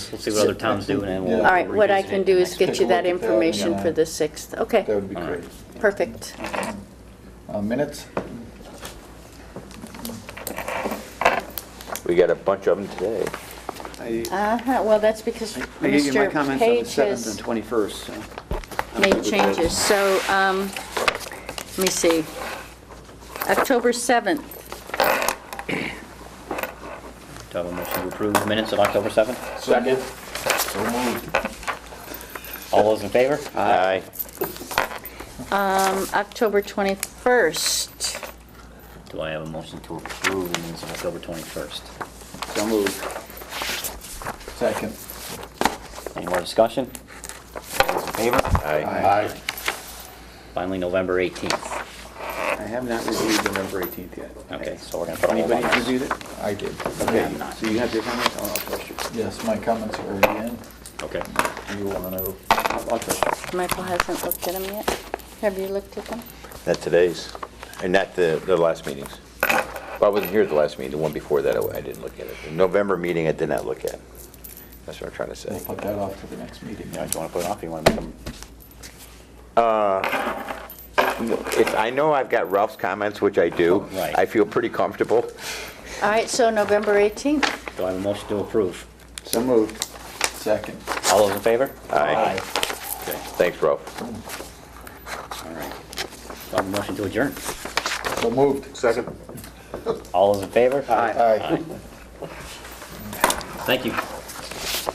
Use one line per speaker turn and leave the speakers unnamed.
We'll see what other towns do and then we'll.
Yeah.
All right, what I can do is
Take a
get you that
look at that,
information
yeah.
for the 6th.
That
Okay,
would be
All
great.
perfect.
Uh, Minutes?
We got a bunch of them today.
I
Uh-huh, well, that's because
I gave you my
Mr.
comments on the
Page
7th and
has
21st, so. I'm good
made
with
changes.
those.
So, um, let me see. October 7th,
Do I have a motion to approve minutes of October 7th?
Second. So moved.
All those in favor?
Aye.
um, October 21st.
Do I have a motion to approve the minutes of October 21st?
So moved.
Second.
Any more discussion? All those in favor?
Aye.
Finally, November 18th.
I have not reviewed the November 18th yet.
Okay, so we're gonna put a whole
Anybody
bunch.
reviewed it?
I did.
Okay,
I'm not.
so you have your comments? I'll I'll trust you.
Yes, my comments are already in.
Okay.
Do you want to?
I'll I'll trust you.
Michael hasn't looked at them yet. Have you looked at them?
Not today's, and not the, the last meetings. Well, I wasn't here at the last meeting, the one before that, I I didn't look at it. The November meeting, I did not look at. That's what I'm trying to
We'll
say.
put that off to the next meeting.
Now, do you wanna put it off? or You wanna make them?
Uh, If, I know I've got Ralph's comments, which I do.
Right.
I feel pretty comfortable.
All right, so November 18th.
Do I have a motion to approve?
So moved.
Second.
All those in favor?
Aye.
Okay,
Thanks, Ralph.
all right. Do I have a motion to adjourn?
So moved.
Second.
All those in favor?
Aye.
Aye.
Thank you.